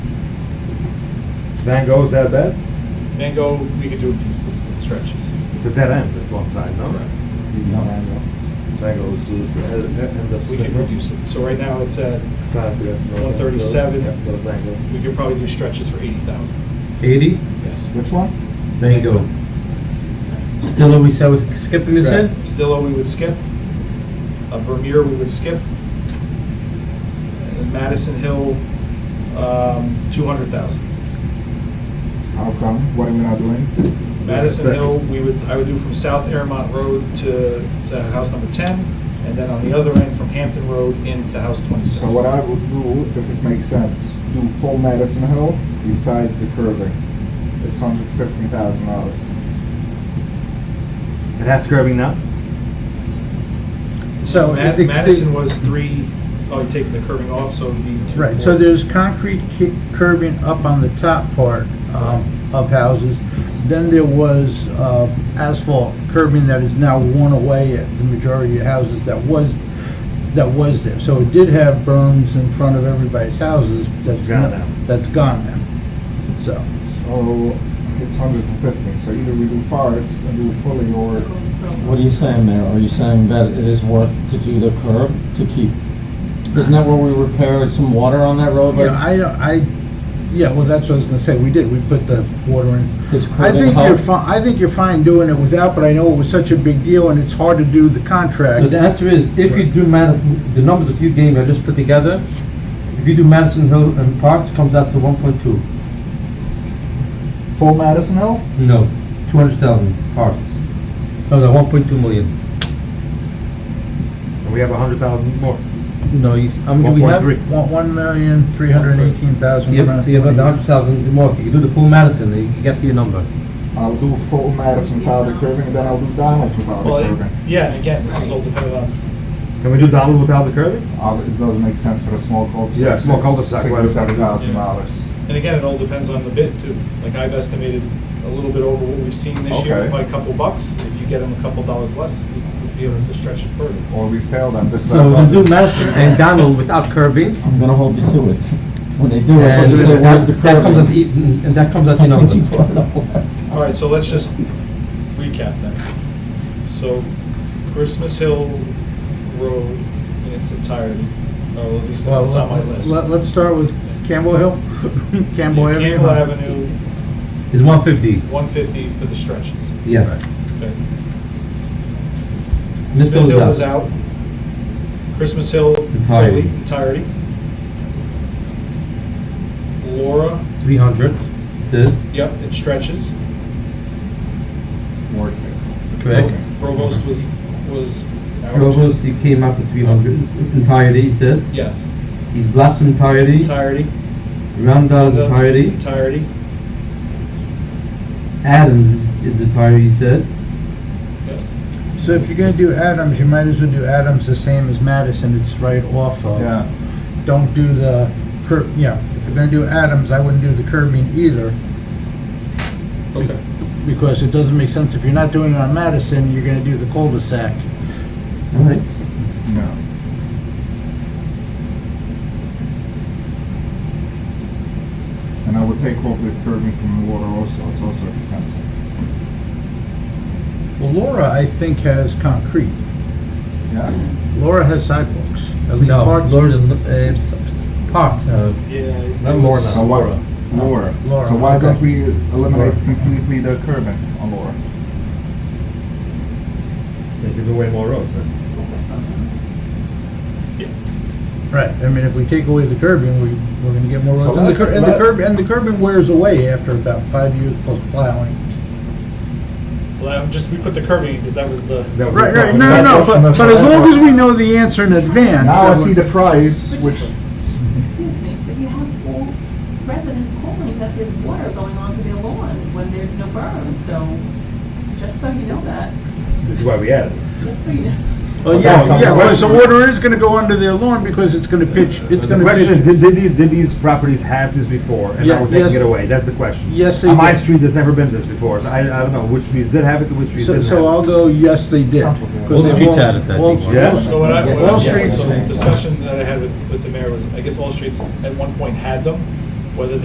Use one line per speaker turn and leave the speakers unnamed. Van Gogh is that bad?
Van Gogh, we could do in pieces, in stretches.
It's a dead end at one side, no?
Correct.
It's not Van Gogh. It's Van Gogh's uh, uh, end of
We could
spectrum.
reduce it. So right now, it's at,
Class, yes, no, Van
137.
Gogh. Yeah, those Van Gogh.
we could probably do stretches for eighty thousand.
80?
Yes.
Which one?
Van Gogh. Still, we said we're skipping this in?
Stillo, we would skip. Uh, Vermeer, we would skip. And Madison Hill, um, two hundred thousand.
How come? What am I not doing?
Madison
Yeah,
Hill,
stretches.
we would, I would do from South Airmont Road to, to house number ten, and then on the other end from Hampton Road into house twenty-six.
So what I would do, if it makes sense, do full Madison Hill besides the curving. It's hundred fifteen thousand dollars.
It has curving now?
So,
Ma-
the- the-
Madison was three, oh, you take the curving off, so it'd be two.
Right, so there's concrete ki- curbing up on the top part um, of houses. Then there was uh, asphalt curbing that is now worn away at the majority of houses that was, that was there. So it did have berms in front of everybody's houses. That's
It's gone
not-
now.
That's gone now. So,
So Oh, it's hundred and fifteen, so either we do parts and do fully or
What are you saying, Mayor? Are you saying that it is worth to do the curb to keep? Isn't that where we repaired some water on that road?
you know, I, don't- I, yeah, well, that's what I was gonna say. We did, we put the water in.
Is
I
curbing
think you're
help?
fine, I think you're fine doing it without, but I know it was such a big deal and it's hard to do the contract.
So the answer is, if you do Madison, the numbers that you gave me, I just put together, if you do Madison Hill and Parks, comes out to 1.2.
full Madison Hill?
No, 200,000 Parks. No, no, 1.2 million.
And we have a hundred thousand more.
No, you, how much do we have?
1.3.
One, one million, three hundred and eighteen thousand, one
Yep, so you
hundred
have
and
about
twenty.
100,000 more. So you do the full Madison, you get to your number.
I'll do full Madison without the curving, and then I'll do Donald without
Well,
the
it-
curving.
yeah, and again, this is all um, dependent on
Can we do Donald without the curving?
Uh, It doesn't make sense for a small cul-de-sac.
Yeah, small cul-de-sac, why-
Sixty-seven thousand dollars.
And again, it all depends on the bid too. Like I've estimated a little bit over what we've seen this year
Okay.
by a couple bucks. If you get them a couple dollars less, you would be able to stretch it further.
Or we tell them this is.
So we do Madison and Donald without curbing.
I'm gonna hold you to it. When they do it,
And
they say, where's the
that comes at,
curbing?
the- and that comes at your
I
number.
think you brought it up last time.
All right, so let's just recap then. So Christmas Hill Road in its entirety, or at least
Well,
it's on my list.
let- Let's start with Campbell Hill, Campbell Avenue.
Campbell Avenue,
It's 150,
one fifty for the stretches.
yeah.
Okay.
This
Smith
goes
Hill was
down.
out. Christmas Hill
Entirety.
fully, entirety. Laura,
300, the,
yep, it stretches.
correct?
Provost was, was out.
Provost, he came out to 300 entirety, he said.
Yes,
He's Blossom entirety,
entirety.
Randall
The-
entirety,
Entirety,
Adams is entirety, he said.
yes.
So if you're gonna do Adams, you might as well do Adams the same as Madison, it's right off of.
Yeah,
Don't do the cur, yeah, if you're gonna do Adams, I wouldn't do the curbing either,
Okay.
because it doesn't make sense. If you're not doing it on Madison, you're gonna do the cul-de-sac.
All right.
no. And I would take off the curving from the water also, it's also expensive.
Well, Laura, I think, has concrete.
Yeah,
Laura has sidewalks, at least
No,
parts.
Lord, uh, s- s- parts, uh,
Yeah.
Not Laura now.
so what, Laura,
Laura,
so why don't
okay.
we eliminate
Laura.
completely the curving on Laura?
They give away more roads, then.
Right, I mean, if we take away the curbing, we, we're gonna get more
So
roads. And the
let's-
cur- And the
let-
curb, and the curbing wears away after about five years plus plowing.
Well, I'm just, we put the curbing because that was the,
That was
Right,
the
right,
problem.
no, no, no,
That's-
but,
that's
but
what
as
I
long
thought.
as we know the answer in advance.
Now I
that
see
would-
the price, which,
Excuse me, but you have all residents calling that there's water going onto their lawn when there's no berm, so just so you know that,
This is why we added. it.
just so you know.
Well,
Okay,
yeah,
come
yeah,
on.
well, so water is gonna go under their lawn because it's gonna pitch, it's
The
gonna
question is,
pitch.
did, did these, did these properties have this before, and now
Yeah,
we're taking
yes.
it away? That's the question.
Yes, they
On my
did.
street, there's never been this before, so I, I don't know, which streets did have it, and which streets
So,
didn't
so I'll
have it.
go, yes, they did. 'Cause
All the
they
streets
won't-
had it, I
all-
think.
Yeah?
so what I, what
All
I, yeah,
streets-
so the discussion that I had with, with the mayor was, I guess all streets at one point had them, whether